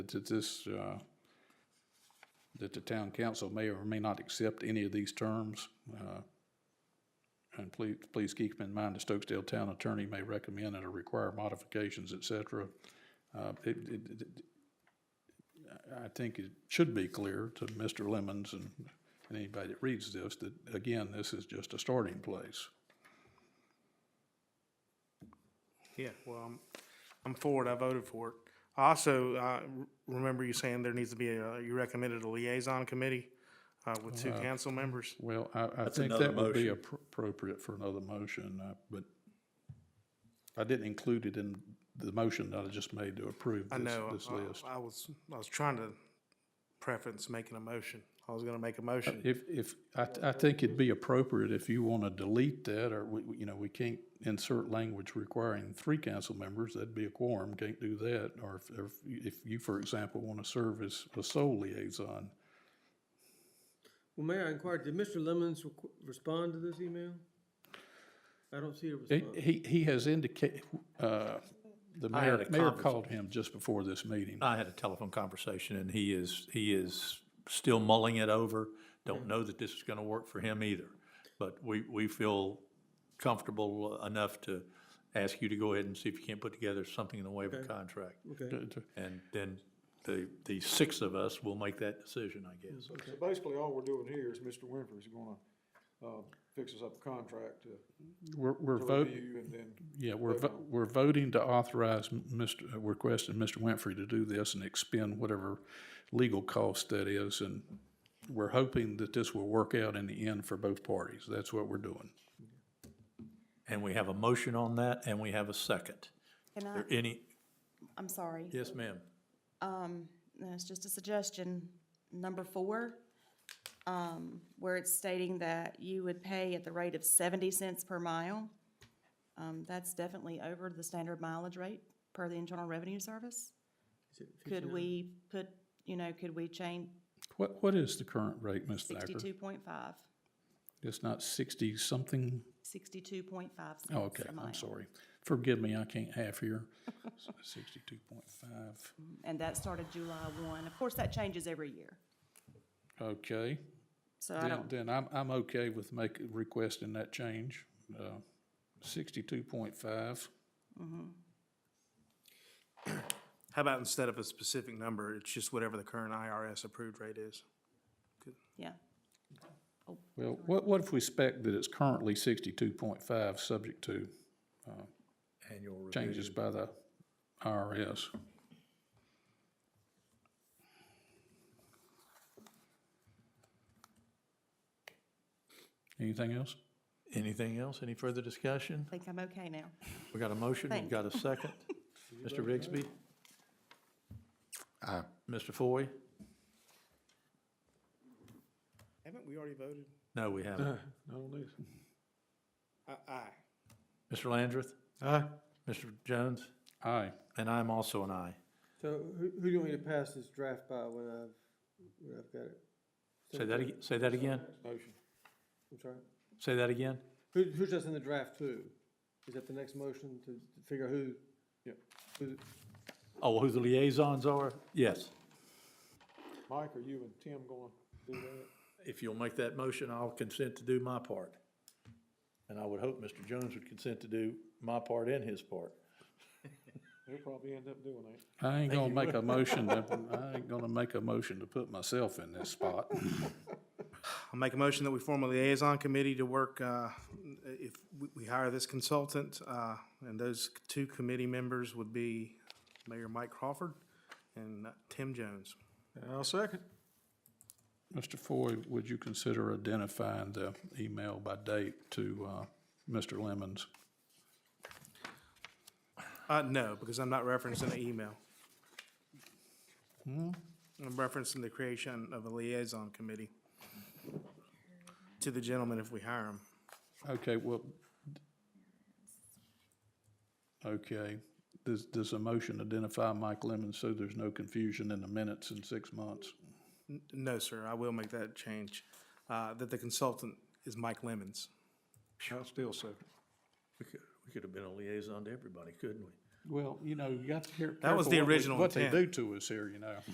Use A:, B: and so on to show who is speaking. A: that this, uh, that the town council may or may not accept any of these terms. uh, And please, please keep in mind, the Stokesdale Town Attorney may recommend and or require modifications, et cetera. Uh, it, it, it- I I think it should be clear to Mr. Lemons and and anybody that reads this, that, again, this is just a starting place.
B: Yeah, well, I'm, I'm for it. I voted for it. I Also, I r- remember you saying there needs to be a, you recommended a liaison committee, uh, with two council members.
A: Well, I, I think
C: another
A: that would be
C: motion.
A: appro- appropriate for another motion, uh, but I didn't include it in the motion that I just made to approve
B: I
A: this,
B: know, uh,
A: this
B: I-
A: list.
B: I was, I was trying to preference making a motion. I was gonna make a motion.
A: If, if, I, I think it'd be appropriate if you want to delete that, or we, we- you know, we can't insert language requiring three council members, that'd be a quorum, can't do that. Or if, or if you- if you, for example, want to serve as a sole liaison,
D: Well, Mayor, I inquired, did Mr. Lemons requ- respond to this email? I don't see a
A: He-
D: response.
A: He, he has indicated, uh, the
C: I had
A: mayor, mayor
C: a conversa-
A: called him just before this meeting.
C: I had a telephone conversation and he is, he is still mulling it over. Don't know that this is going to work for him either. But we, we feel comfortable enough to ask you to go ahead and see if you can't put together something in the way of a contract.
D: Okay,
A: To- to-
C: And then the, the six of us will make that decision, I guess.
E: So basically, all we're doing here is Mr. Winfrey's gonna, uh, fix us up a contract to
A: We're, we're
E: to
A: voting,
E: review and then,
A: yeah, we're,
E: vote
A: vo- we're voting to authorize m- Mr., uh, we're requesting Mr. Winfrey to do this and expend whatever legal cost that is. And we're hoping that this will work out in the end for both parties. That's what we're doing.
C: And we have a motion on that and we have a second.
F: Can
C: Are
F: I,
C: there any,
F: I'm sorry,
C: yes, ma'am?
F: um, no, it's just a suggestion, number four, um, where it's stating that you would pay at the rate of seventy cents per mile. Um, that's definitely over the standard mileage rate per the Internal Revenue Service. Could we put, you know, could we change
A: What, what is the current rate, Ms. Thacker?
F: sixty-two point five,
A: It's not sixty something?
F: sixty-two point five cents a
A: Oh,
F: mile?
A: okay, I'm sorry. Forgive me, I can't half here. Sixty-two point five.
F: And that started July one. Of course, that changes every year,
A: Okay.
F: so I
A: Then,
F: don't,
A: then I'm, I'm okay with make, requesting that change, uh, sixty-two point five.
B: How about instead of a specific number, it's just whatever the current IRS approved rate is?
F: yeah.
A: Well, what, what if we spec that it's currently sixty-two point five, subject to
C: Annual review.
A: changes by the IRS? Anything else?
C: Anything else? Any further discussion?
F: I think I'm okay now.
C: We got a motion, we've
F: Thank
C: got a second. Mr. Rigsby? Mr. Foy?
B: Haven't we already voted?
C: No, we haven't.
B: Aye, aye.
C: Mr. Landrith? Aye. Mr. Jones?
A: Aye.
C: And I'm also an aye.
D: so who, who do you want me to pass this draft by when I've, when I've got it?
C: Say that, ag- say that again?
E: motion.
D: I'm sorry.
C: Say that again?
D: Who, who's just in the draft too? Is that the next motion to to figure out who?
E: Yep.
D: who-
C: Oh, who the liaisons are? Yes.
E: Mike, are you and Tim gonna do that?
C: If you'll make that motion, I'll consent to do my part. And I would hope Mr. Jones would consent to do my part and his part.
E: They'll probably end up doing that.
A: I ain't gonna make a motion to, I ain't gonna make a motion to put myself in this spot.
B: I'll make a motion that we form a liaison committee to work, uh, if we- we hire this consultant, uh, and those two committee members would be Mayor Mike Crawford and uh, Tim Jones.
E: I'll second.
A: Mr. Foy, would you consider identifying the email by date to uh, Mr. Lemons?
B: Uh, no, because I'm not referencing the email.
E: Hmm?
B: I'm referencing the creation of a liaison committee to the gentleman if we hire him.
A: Okay, well, okay, does, does a motion identify Mike Lemons so there's no confusion in the minutes in six months?
B: N- No, sir, I will make that change, uh, that the consultant is Mike Lemons.
E: I'll still second.
C: We could, we could have been a liaison to everybody, couldn't we?
A: Well, you know, you got to care.
B: That was
A: careful
B: the
A: what we-
B: original
A: What they do
B: intent.
A: to us here, you know.